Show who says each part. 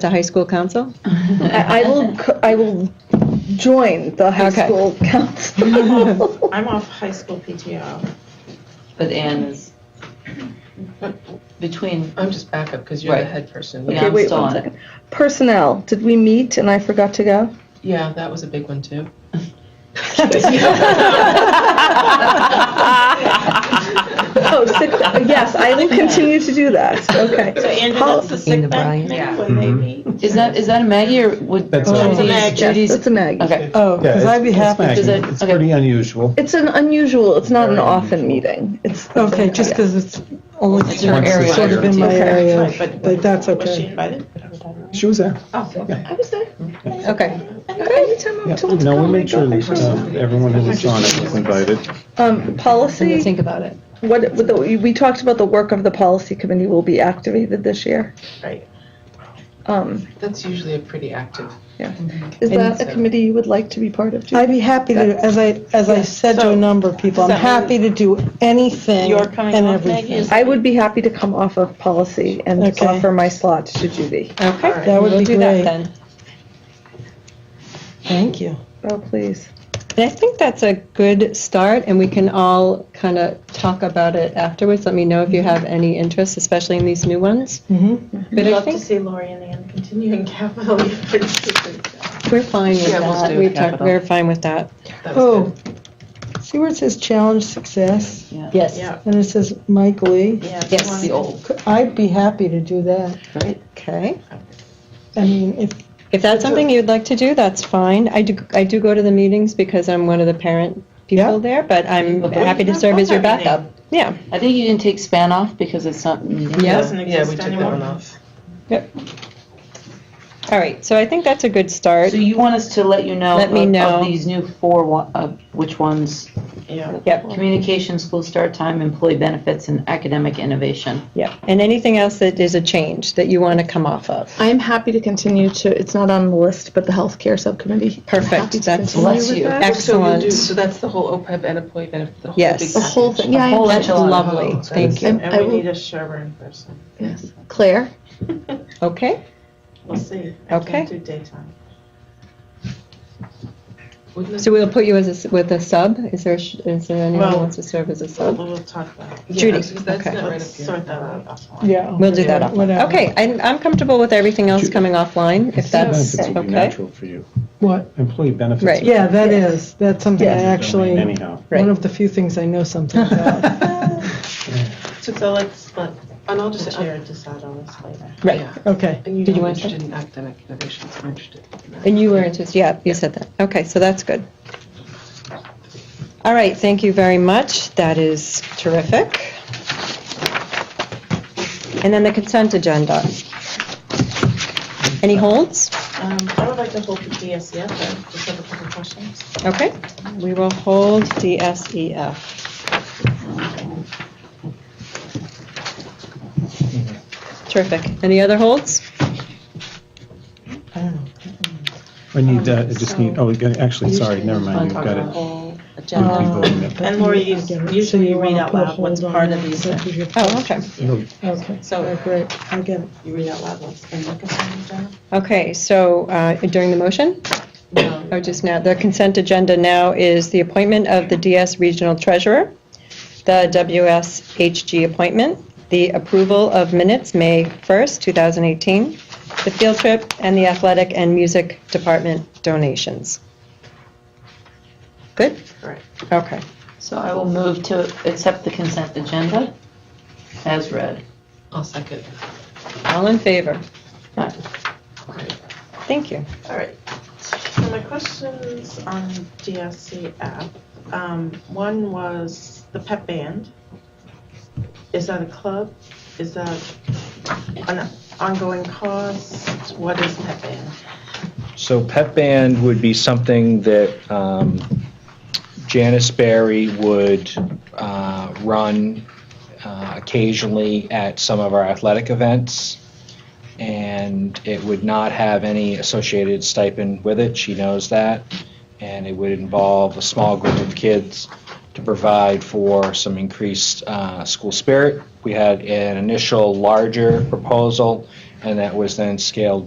Speaker 1: to high school council?
Speaker 2: I, I will. co- I will join the high
Speaker 1: Okay.
Speaker 2: school council.
Speaker 3: I'm off high school PTO.
Speaker 4: But Anne is between,
Speaker 5: I'm just backup because you're the
Speaker 4: Right.
Speaker 5: head person.
Speaker 4: Yeah,
Speaker 5: Yeah.
Speaker 4: I'm
Speaker 2: wait
Speaker 4: still
Speaker 2: one
Speaker 4: on it.
Speaker 2: second. Personnel. Did we meet and I forgot to go?
Speaker 5: Yeah, that was a big one too.
Speaker 2: Oh, sick. yes, I will continue to do that. Okay.
Speaker 3: So Andrew,
Speaker 2: How-
Speaker 3: that's the sick bank
Speaker 4: Yeah.
Speaker 3: when they
Speaker 6: Mm-hmm.
Speaker 3: meet.
Speaker 4: is that, is that a Maggie or would?
Speaker 7: That's a-
Speaker 4: Judy-
Speaker 3: That's a Maggie.
Speaker 2: yes,
Speaker 4: Judy's,
Speaker 2: it's a Maggie.
Speaker 4: okay.
Speaker 6: Oh,
Speaker 7: Yeah,
Speaker 6: because
Speaker 7: it's-
Speaker 6: I'd be
Speaker 7: it's
Speaker 6: happy.
Speaker 7: Maggie.
Speaker 4: Does it-
Speaker 7: It's
Speaker 4: okay.
Speaker 7: pretty unusual.
Speaker 2: It's an unusual. It's not an
Speaker 7: Very
Speaker 2: often
Speaker 7: unusual.
Speaker 2: meeting. It's
Speaker 6: Okay, just because it's only
Speaker 4: It's your area.
Speaker 6: sort of in my
Speaker 2: Okay.
Speaker 6: area,
Speaker 3: Right, but-
Speaker 6: but that's
Speaker 3: Was she
Speaker 6: okay.
Speaker 3: invited?
Speaker 7: She was there.
Speaker 3: Oh, okay.
Speaker 2: I was there.
Speaker 1: Okay.
Speaker 2: Anytime I'm
Speaker 7: Yeah.
Speaker 2: told to
Speaker 7: No,
Speaker 2: go,
Speaker 7: we
Speaker 2: I
Speaker 7: made
Speaker 2: go.
Speaker 7: sure that um, everyone who was on it was invited.
Speaker 2: Um,
Speaker 1: Something to
Speaker 2: policy.
Speaker 1: think about it.
Speaker 2: What, what the, we talked about the work of the policy committee will be activated this year.
Speaker 3: Right.
Speaker 2: Um,
Speaker 5: That's usually a pretty active.
Speaker 2: is
Speaker 6: And
Speaker 2: that a
Speaker 5: so-
Speaker 2: committee you would like to be part of? Judy?
Speaker 6: I'd be happy to, as I, as I said to
Speaker 3: So,
Speaker 6: a number of people,
Speaker 3: does
Speaker 6: I'm
Speaker 3: that
Speaker 6: happy to do anything
Speaker 3: You're coming
Speaker 6: and
Speaker 3: off, Maggie?
Speaker 6: everything.
Speaker 3: Is-
Speaker 2: I would be happy to come off of policy and
Speaker 6: Okay.
Speaker 2: offer my slot to Judy.
Speaker 3: Okay.
Speaker 6: That would
Speaker 1: We'll
Speaker 6: be
Speaker 1: do that
Speaker 6: great.
Speaker 1: then.
Speaker 6: Thank you.
Speaker 2: Oh, please.
Speaker 1: And I think that's a good start, and we can all kind of talk about it afterwards. Let me know if you have any interest, especially in these new ones.
Speaker 6: Mhm.
Speaker 1: But I
Speaker 3: Love to
Speaker 1: think
Speaker 3: see Lori and Ann continuing capital.
Speaker 1: we're fine with
Speaker 5: Yeah, we'll
Speaker 1: that.
Speaker 5: do
Speaker 1: We've talked,
Speaker 4: capital.
Speaker 1: we're fine with that.
Speaker 5: That was
Speaker 6: Oh,
Speaker 5: good.
Speaker 6: see where it says challenge success?
Speaker 1: Yes.
Speaker 3: Yeah.
Speaker 6: And it says Mike Lee.
Speaker 3: Yeah. if you
Speaker 1: Yes,
Speaker 3: wanna-
Speaker 4: The old,
Speaker 6: I'd be happy to do that.
Speaker 4: right?
Speaker 1: Okay.
Speaker 6: I mean, if,
Speaker 1: If that's something you'd like to do, that's fine. I do, I do go to the meetings because I'm one of the parent people
Speaker 6: Yeah.
Speaker 1: there, but I'm
Speaker 4: Okay.
Speaker 1: happy to serve as your backup. Yeah.
Speaker 4: I think you didn't take span off because it's not needed.
Speaker 1: Yeah.
Speaker 3: Doesn't
Speaker 5: Yeah, we
Speaker 3: exist
Speaker 5: took that one
Speaker 3: anymore.
Speaker 5: off.
Speaker 1: All right, so I think that's a good start.
Speaker 4: So you want us to let you know
Speaker 1: Let me
Speaker 4: of-
Speaker 1: know.
Speaker 4: of these new four, wa- of which ones?
Speaker 3: Yeah.
Speaker 1: Yep.
Speaker 4: Communication, school start time, employee benefits, and academic innovation.
Speaker 1: Yeah, and anything else that is a change that you want to come off of?
Speaker 2: I'm happy to continue to, it's not on the list, but the healthcare subcommittee.
Speaker 1: Perfect,
Speaker 2: Happy to
Speaker 1: that's-
Speaker 2: continue
Speaker 4: Bless
Speaker 2: with
Speaker 4: you.
Speaker 2: that.
Speaker 5: So we'll do,
Speaker 1: Excellent.
Speaker 5: so that's the whole OPEB and employee benefit, the whole
Speaker 1: Yes.
Speaker 5: big
Speaker 2: The whole thing,
Speaker 4: A
Speaker 2: yeah,
Speaker 4: whole
Speaker 2: I am.
Speaker 1: That's
Speaker 4: enchilada.
Speaker 1: lovely,
Speaker 5: Oh,
Speaker 1: thank you.
Speaker 2: And I
Speaker 3: And we
Speaker 2: will-
Speaker 3: need a Sherburne person.
Speaker 2: yes. Claire?
Speaker 1: Okay,
Speaker 3: We'll see. I
Speaker 1: Okay.
Speaker 3: can't do daytime.
Speaker 5: Wouldn't it-
Speaker 1: so we'll put you as a s with a sub? Is there, sh- is there anyone who
Speaker 3: Well-
Speaker 1: wants to serve as a
Speaker 3: But
Speaker 1: sub?
Speaker 3: we'll talk about it.
Speaker 5: Yeah,
Speaker 1: Judy,
Speaker 5: because That's
Speaker 1: okay.
Speaker 5: not right
Speaker 3: Let's
Speaker 5: up here.
Speaker 3: sort that out offline.
Speaker 6: yeah.
Speaker 1: We'll do that.
Speaker 6: Whatever.
Speaker 1: Okay, I'm, I'm comfortable with everything else
Speaker 7: Ju-
Speaker 1: coming offline, if that's
Speaker 7: Benefits would be
Speaker 1: okay.
Speaker 7: natural for you.
Speaker 6: What?
Speaker 7: Employee benefits.
Speaker 1: Right.
Speaker 6: Yeah, that is, that's something I
Speaker 7: is your domain
Speaker 6: actually,
Speaker 7: Anyhow.
Speaker 6: one of the few things I know something about.
Speaker 3: So let's let, and I'll just chair decide on this later.
Speaker 1: Right,
Speaker 5: Yeah.
Speaker 6: Okay.
Speaker 5: And you
Speaker 1: Did
Speaker 5: know
Speaker 1: you
Speaker 5: I'm
Speaker 1: want to-
Speaker 5: interested in academic innovations, I'm interested in that.
Speaker 1: and you were interested, yeah, you said that. Okay, so that's good. All right, thank you very much, that is terrific. And then the consent agenda. Any holds?
Speaker 3: Um, I would like to hold the DSEF, I just have a couple questions.
Speaker 1: Okay, we will hold E DSEF. Terrific. Any other holds?
Speaker 6: I don't know.
Speaker 7: I need, uh, I just need, oh, we got- actually, sorry, never mind, you've
Speaker 5: Talk
Speaker 7: got
Speaker 5: about the
Speaker 7: it.
Speaker 5: whole
Speaker 7: We'll be
Speaker 5: Agenda.
Speaker 7: voting it.
Speaker 3: Um, And Lori, you- usually you read out loud what's part of these.
Speaker 1: Oh, okay.
Speaker 6: Okay,
Speaker 3: So
Speaker 6: great, I get it.
Speaker 3: you read out loud what's been looking for
Speaker 1: Okay, so uh, during the motion,
Speaker 3: them.
Speaker 1: or just now, the consent agenda now is the appointment of the DS Regional Treasurer, the WSHG appointment, the approval of minutes, May 1st, 2018, the field trip, and the athletic and music department donations. Good?
Speaker 3: Correct.
Speaker 1: Okay.
Speaker 4: So I will move to accept the consent agenda as read.
Speaker 5: I'll second.
Speaker 1: All in favor?
Speaker 4: Aye.
Speaker 1: Thank you.
Speaker 3: All right. So my questions on DSCF, um, one was the pep band. Is that a club? Is that an ongoing cost? What is pep band?
Speaker 8: So pep band would be something that um, Janice Berry would uh, run uh, occasionally at some of our athletic events. And it would not have any associated stipend with it, she knows that. And it would involve a small group of kids to provide for some increased uh, school spirit. We had an initial larger proposal, and that was then scaled